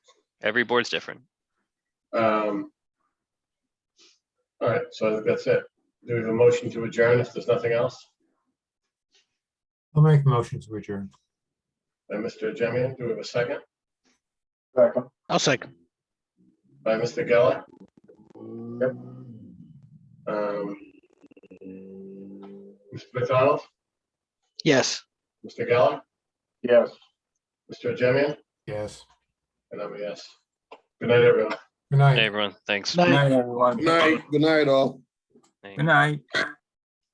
Every board's different. Um. All right, so I think that's it. Do we have a motion to adjourn if there's nothing else? I'll make a motion to adjourn. By Mr. Jemian, do we have a second? Second. I'll second. By Mr. Geller? Yep. Um. Mr. McDonald, Yes. Mr. Geller, Yes. Mr. Jemian, Yes. and I'm a yes. Good night, everyone. Hey, Good night. everyone, thanks. Night, everyone. Good night, good night all. Thank- Good night.